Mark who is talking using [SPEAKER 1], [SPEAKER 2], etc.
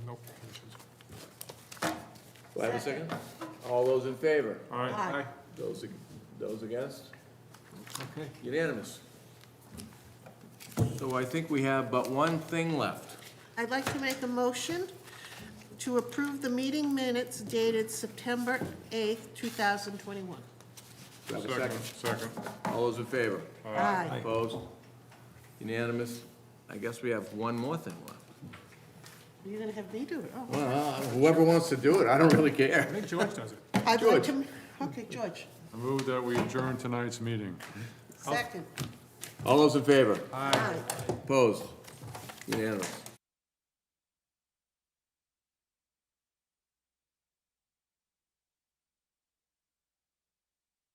[SPEAKER 1] Do I have a second? All those in favor?
[SPEAKER 2] All right.
[SPEAKER 3] Aye.
[SPEAKER 1] Those, ag- those against?
[SPEAKER 2] Okay.
[SPEAKER 1] Unanimous. So I think we have but one thing left.
[SPEAKER 3] I'd like to make a motion to approve the meeting minutes dated September 8th, 2021.
[SPEAKER 1] Do I have a second?
[SPEAKER 2] Second.
[SPEAKER 1] All those in favor?
[SPEAKER 3] Aye.
[SPEAKER 1] Opposed? Unanimous? I guess we have one more thing left.
[SPEAKER 3] You're going to have me do it? Oh.
[SPEAKER 1] Well, uh, whoever wants to do it, I don't really
[SPEAKER 2] I
[SPEAKER 1] care.
[SPEAKER 2] think George does it.
[SPEAKER 3] I'd like
[SPEAKER 1] George.
[SPEAKER 3] to, okay, George,
[SPEAKER 2] I move that we adjourn tonight's meeting.
[SPEAKER 3] second.
[SPEAKER 1] All those in favor?
[SPEAKER 3] Aye.
[SPEAKER 1] Opposed? Unanimous.